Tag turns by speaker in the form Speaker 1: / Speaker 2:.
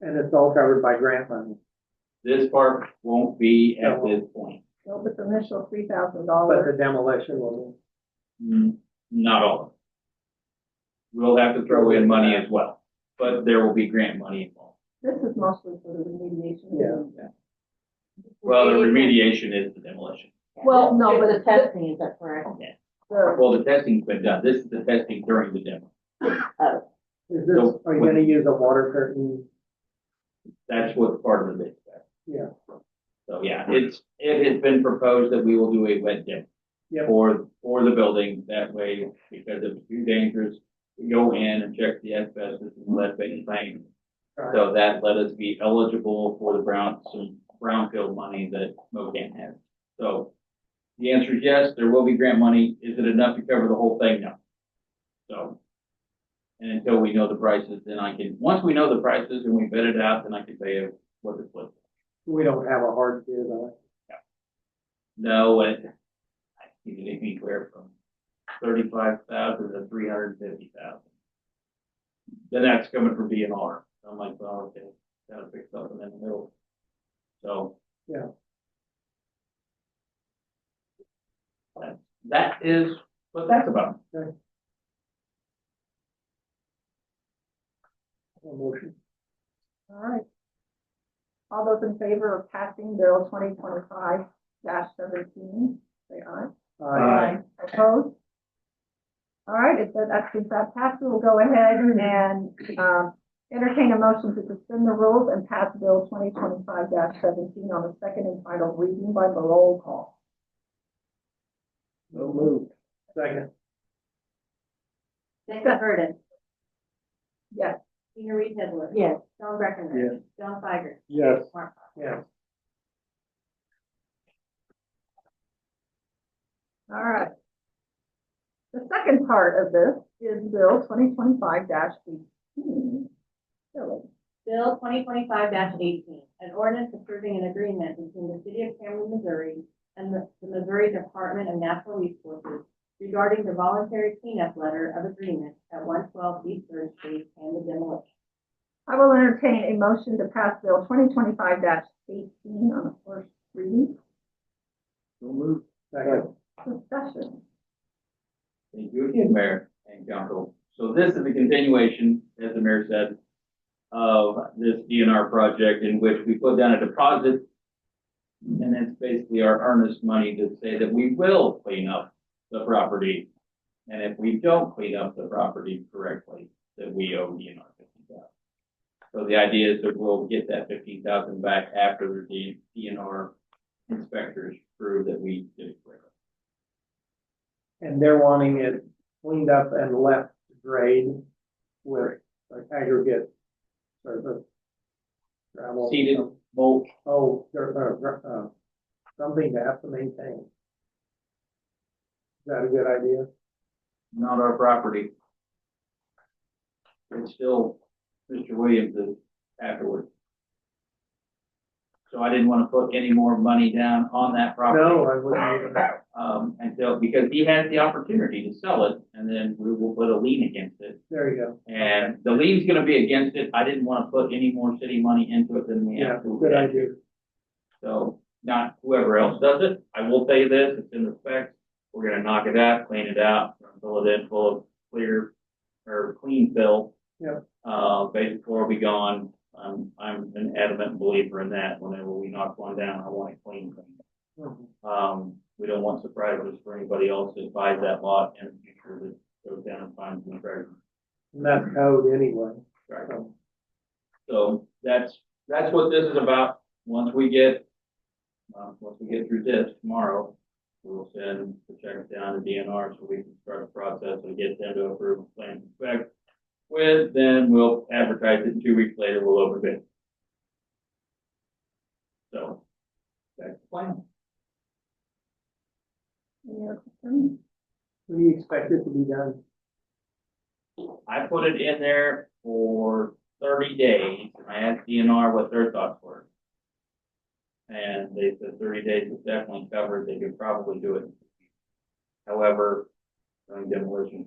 Speaker 1: and it's all covered by grant money.
Speaker 2: This part won't be at this point.
Speaker 3: Well, with the initial three thousand
Speaker 1: But
Speaker 3: dollars,
Speaker 1: the demolition will,
Speaker 2: Mm, Not all. of it. We'll have to throw in money as well, but there will be grant money involved.
Speaker 3: this is mostly for the remediation.
Speaker 1: Yeah.
Speaker 2: Well, the remediation is the demolition.
Speaker 3: Well, no, but
Speaker 4: Just
Speaker 3: it-
Speaker 4: The testing, is that correct?
Speaker 3: The,
Speaker 2: Well, the testing's been done. This is the testing during the demo.
Speaker 1: is this,
Speaker 2: So-
Speaker 1: are you gonna use a water curtain?
Speaker 2: That's what's part of the bid.
Speaker 1: Yeah.
Speaker 2: So, yeah, it's, it has been proposed that we will do a wet demo.
Speaker 1: Yep.
Speaker 2: For, for the building, that way, because it's too dangerous, we go in and check the asbestos and lead based things.
Speaker 1: Right.
Speaker 2: So that let us be eligible for the brown, some brownfield money that Mocan has. So the answer is yes, there will be grant money. Is it enough to cover the whole thing? No. So. And until we know the prices, then I can, once we know the prices and we bid it out, then I can tell you what it's worth.
Speaker 1: We don't have a hard bid on it.
Speaker 2: No, it, I think it anywhere from thirty-five thousand to three hundred and fifty thousand. Then that's coming from B and R. I'm like, well, okay, gotta fix something in the middle. So.
Speaker 1: Yeah.
Speaker 2: That- That is what that's about.
Speaker 1: A motion.
Speaker 3: all right. All those in favor of passing bill twenty twenty-five seventeen, say aye.
Speaker 1: Aye.
Speaker 3: Opposed? All right, if that, that- since that passed, we'll go ahead and, um, entertain a motion to suspend the rules and pass bill twenty twenty-five seventeen on the second and final reading by the roll call.
Speaker 1: So moved. Second.
Speaker 5: Jessica Burden,
Speaker 3: Yes,
Speaker 5: Gina Reed Hitler,
Speaker 4: Yes,
Speaker 5: John Breckinridge, John Tiger,
Speaker 1: Yes.
Speaker 5: Mark Fox.
Speaker 1: Yes.
Speaker 3: all right. The second part of this is bill twenty twenty-five eighteen.
Speaker 5: Bill twenty twenty-five eighteen, an ordinance approving an agreement between the city of Cameron, Missouri and the the Missouri Department of Natural Resources regarding the voluntary cleanup letter of agreement at one twelve East Third Street and the demolition.
Speaker 3: I will entertain a motion to pass bill twenty twenty-five eighteen on the first reading.
Speaker 2: We'll move.
Speaker 1: Second.
Speaker 3: Discussion.
Speaker 2: Thank you again, Mayor and Council. So this is a continuation, as the mayor said, of this DNR project in which we put down a deposit. And that's basically our earnest money to say that we will clean up the property. And if we don't clean up the property correctly, that we owe DNR fifty thousand. So the idea is that we'll get that fifteen thousand back after the DNR inspectors prove that we did it correctly.
Speaker 1: And they're wanting it cleaned up and left grade with like aggregate surface. Gravel.
Speaker 2: Seeded. Well,
Speaker 1: Oh, there, uh, uh, something to have to maintain. Is that a good idea?
Speaker 2: not our property. It's still Mr. Williams' afterward. So I didn't want to put any more money down on that property,
Speaker 1: No, I wouldn't even.
Speaker 2: um, until, because he has the opportunity to sell it, and then we will put a lien against it.
Speaker 1: There you go.
Speaker 2: And the lien's gonna be against it, I didn't want to put any more city money into it than we
Speaker 1: Yeah,
Speaker 2: have to.
Speaker 1: good idea.
Speaker 2: So, not whoever else does it, I will say this, it's in the specs, we're gonna knock it out, clean it out, fill it in full of clear, or clean fill.
Speaker 1: Yep.
Speaker 2: Uh, basic floor will be gone, I'm, I'm an adamant believer in that, whenever we knock one down, I want it clean, clean.
Speaker 1: Mhm.
Speaker 2: Um, we don't want surprises for anybody else that buys that lot in the future that goes down and finds an treasure.
Speaker 1: And that's code anyway.
Speaker 2: Right.
Speaker 1: so.
Speaker 2: So that's, that's what this is about. Once we get, uh, once we get through this tomorrow, we'll send the check down to DNR so we can start the process and get them to approve a plan to inspect. With, then we'll advertise it, and two weeks later, we'll open bid. So, that's the plan.
Speaker 3: Any other questions?
Speaker 1: What do you expect it to be done?
Speaker 2: I put it in there for thirty days, and I asked DNR what their thoughts were. And they said thirty days is definitely covered, they could probably do it. However, during demolition